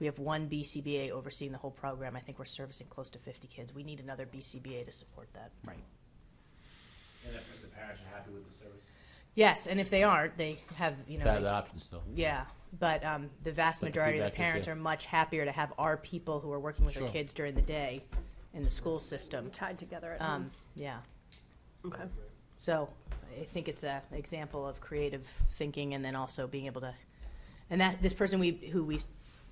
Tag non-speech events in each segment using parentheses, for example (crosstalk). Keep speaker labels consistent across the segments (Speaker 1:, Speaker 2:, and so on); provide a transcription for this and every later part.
Speaker 1: We have one BCBA overseeing the whole program. I think we're servicing close to 50 kids. We need another BCBA to support that.
Speaker 2: Right.
Speaker 3: And if the parents are happy with the service?
Speaker 1: Yes, and if they aren't, they have, you know,
Speaker 4: That
Speaker 1: they-
Speaker 4: the option still.
Speaker 1: Yeah, but um, the vast
Speaker 4: But the
Speaker 1: majority of the
Speaker 4: feedback is,
Speaker 1: parents
Speaker 4: yeah.
Speaker 1: are much happier to have our people who are working with their
Speaker 4: Sure.
Speaker 1: kids during the day in the school system.
Speaker 5: tied together at
Speaker 1: Um,
Speaker 5: home.
Speaker 1: yeah,
Speaker 5: Okay.
Speaker 1: so I think it's a example of creative thinking and then also being able to, and that this person we who we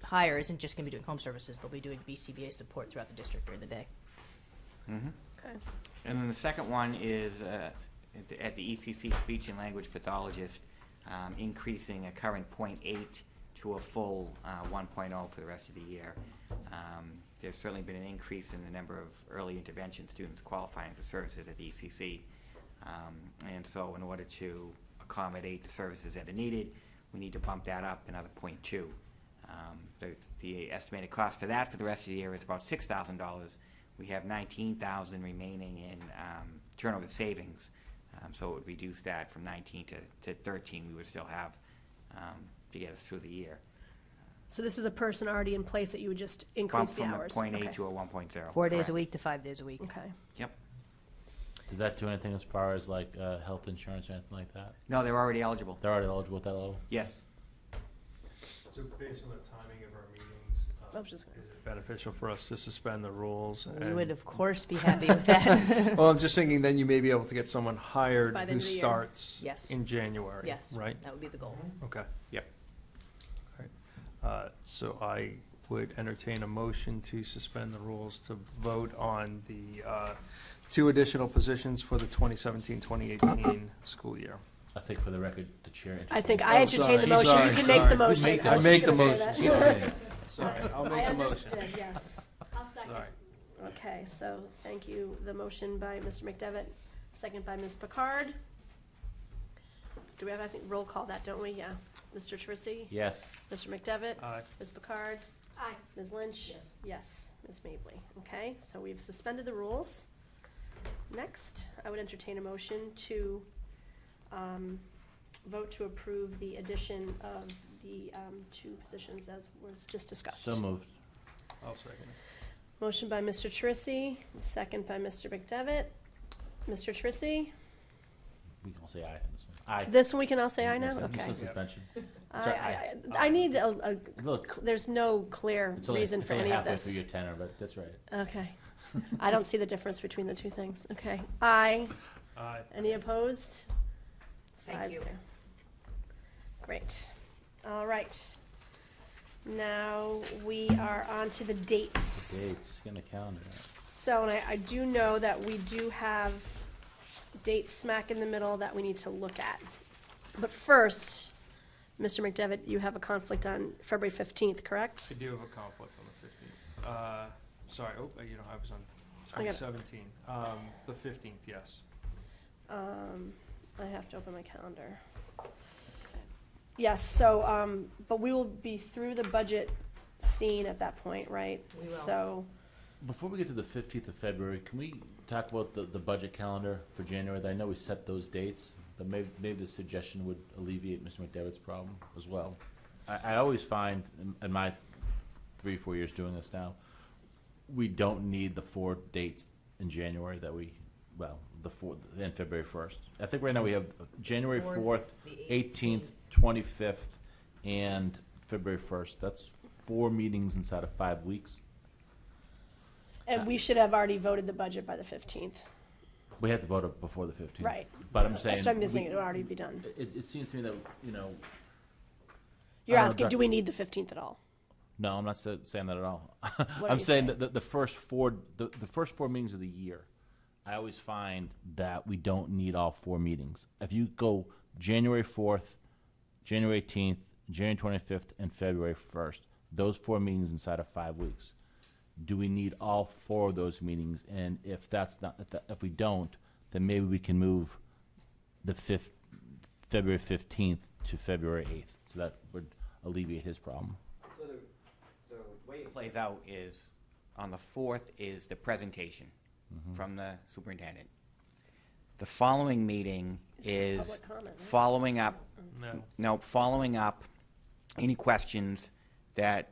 Speaker 1: hire isn't just going to be doing home services; they'll be doing BCBA support throughout the district during the day.
Speaker 5: Okay.
Speaker 2: Mm-hmm. And then the second one is, uh, at the- at the ECC speech and language pathologist, um, increasing a current point eight to a full, uh, one for the rest of the year. Um, there's certainly been an increase in the number of early intervention students qualifying for services at the E ECC. Um, and so in order to accommodate the services that are needed, we need to bump that up another point two. Um, The, the estimated cost for that for the rest of the year is about six thousand dollars. We have nineteen thousand remaining in um, turnover savings, Um, so it would reduce that from nineteen to, to thirteen we would still have um, to get us through the year.
Speaker 5: So this is a person already in place that you would just increase the hours?
Speaker 2: Bump from a point
Speaker 5: Okay.
Speaker 2: eight to a one point zero.
Speaker 1: Four days a week to five days a week.
Speaker 5: Okay.
Speaker 2: Yep.
Speaker 4: Does that do anything as far as like uh, health insurance or anything like that?
Speaker 2: No, they're already eligible.
Speaker 4: They're already eligible at that level.
Speaker 2: Yes.
Speaker 6: So based on the timing of our meetings,
Speaker 5: I
Speaker 6: um,
Speaker 5: was just gonna
Speaker 6: is it beneficial for us to suspend the rules?
Speaker 1: We
Speaker 6: and-
Speaker 1: would
Speaker 6: (laughs)
Speaker 1: of course be happy with that.
Speaker 6: Well, I'm just thinking then you may be able to get someone hired
Speaker 5: By the
Speaker 6: who
Speaker 5: end of the year.
Speaker 6: starts
Speaker 1: Yes.
Speaker 6: in January,
Speaker 1: (laughs) yes,
Speaker 6: right?
Speaker 1: That would be the goal.
Speaker 6: Okay.
Speaker 2: Yep.
Speaker 6: All right. Uh, So I would entertain a motion to suspend the rules to vote on the uh, two additional positions for the 2017-2018 school year.
Speaker 4: I think for the record, the chair.
Speaker 5: I think
Speaker 6: Oh,
Speaker 5: I entertained the
Speaker 6: sorry,
Speaker 5: motion. You
Speaker 6: sorry,
Speaker 5: can make
Speaker 6: sorry.
Speaker 5: the motion.
Speaker 4: Make the
Speaker 5: I was
Speaker 6: motion.
Speaker 5: just
Speaker 6: I
Speaker 5: gonna
Speaker 6: make the
Speaker 5: say that.
Speaker 4: Sorry.
Speaker 6: Sorry, I'll make
Speaker 5: (laughs)
Speaker 6: the
Speaker 5: I
Speaker 6: motion.
Speaker 5: understood, yes.
Speaker 7: I'll second.
Speaker 6: Sorry.
Speaker 5: Okay, so thank you. The motion by Mr. McDevitt, second by Ms. Picard. Do we have, I think, roll call that, don't we? Yeah. Mr. Trissy?
Speaker 4: (laughs) Yes.
Speaker 5: Mr. McDevitt?
Speaker 6: Aye.
Speaker 5: Ms. Picard?
Speaker 7: Aye.
Speaker 5: Ms. Lynch?
Speaker 7: Yes.
Speaker 5: Yes, Ms. Mably. Okay, so we've suspended the rules. Next, I would entertain a motion to um, vote to approve the addition of the um, two positions as was just discussed.
Speaker 4: So moved.
Speaker 6: I'll second it.
Speaker 5: Motion by Mr. Trissy, second by Mr. McDevitt. Mr. Trissy,
Speaker 4: We can all say aye on this one. Aye.
Speaker 5: this one we can all say aye
Speaker 4: Yes,
Speaker 5: now?
Speaker 4: you
Speaker 5: Okay.
Speaker 4: said suspension.
Speaker 5: I,
Speaker 4: Sorry,
Speaker 5: I, I need a, a-
Speaker 4: Look,
Speaker 5: there's no clear
Speaker 4: it's only,
Speaker 5: reason
Speaker 4: it's
Speaker 5: for
Speaker 4: only
Speaker 5: any of
Speaker 4: halfway
Speaker 5: this.
Speaker 4: through your tenor, but
Speaker 5: (laughs)
Speaker 4: that's right.
Speaker 5: Okay. I don't see the difference between the two things. Okay. Aye.
Speaker 6: Aye.
Speaker 5: Any opposed?
Speaker 1: Thank
Speaker 5: Five
Speaker 1: you.
Speaker 5: zero. Great. All right. Now we are on to the dates.
Speaker 4: Dates, get on the calendar.
Speaker 5: So, and I, I do know that we do have dates smack in the middle that we need to look at. But first, Mr. McDevitt, you have a conflict on February fifteenth, correct?
Speaker 6: I do have a conflict on the fifteenth. Uh, sorry, oh, you know, I was on,
Speaker 5: I
Speaker 6: I
Speaker 5: got it.
Speaker 6: was seventeen. Um, the fifteenth, yes.
Speaker 5: Um, I have to open my calendar. Yes, so, um, but we will be through the budget scene at that point, right?
Speaker 1: We will.
Speaker 5: So,
Speaker 4: Before we get to the fifteenth of February, can we talk about the, the budget calendar for January? I know we set those dates, but maybe, maybe the suggestion would alleviate Mr. McDevitt's problem as well. I, I always find in, in my three, four years doing this now, we don't need the four dates in January that we, well, the four, and February first. I think right now we have January
Speaker 1: Fourth,
Speaker 4: fourth,
Speaker 1: the
Speaker 4: eighteenth, twenty-fifth, and February first. That's four meetings inside of five weeks. Uh,
Speaker 5: and we should have already voted the budget by the fifteenth,
Speaker 4: We had to vote up before the fifteenth.
Speaker 5: right?
Speaker 4: But I'm saying.
Speaker 5: That's what I'm missing,
Speaker 4: we-
Speaker 5: it'll already be done.
Speaker 4: It, it seems to me that, you know,
Speaker 5: You're
Speaker 4: I don't know,
Speaker 5: asking,
Speaker 4: Doc-
Speaker 5: do we need the fifteenth at all?
Speaker 4: no, I'm not sa- saying that at all. (laughs)
Speaker 5: are
Speaker 4: I'm
Speaker 5: you saying?
Speaker 4: saying that the, the first four, the, the first four meetings of the year, I always find that we don't need all four meetings. If you go January fourth, January eighteenth, January twenty-fifth, and February first, those four meetings inside of five weeks. Do we need all four of those meetings? And if that's not, if that- if we don't, then maybe we can move the fifth, February fifteenth to February eighth. So that would alleviate his problem.
Speaker 2: So the, the way it plays out is, on the fourth is the presentation from the superintendent. The following meeting is
Speaker 5: public comment, right?
Speaker 2: following up,
Speaker 6: No.
Speaker 2: no, following up any questions that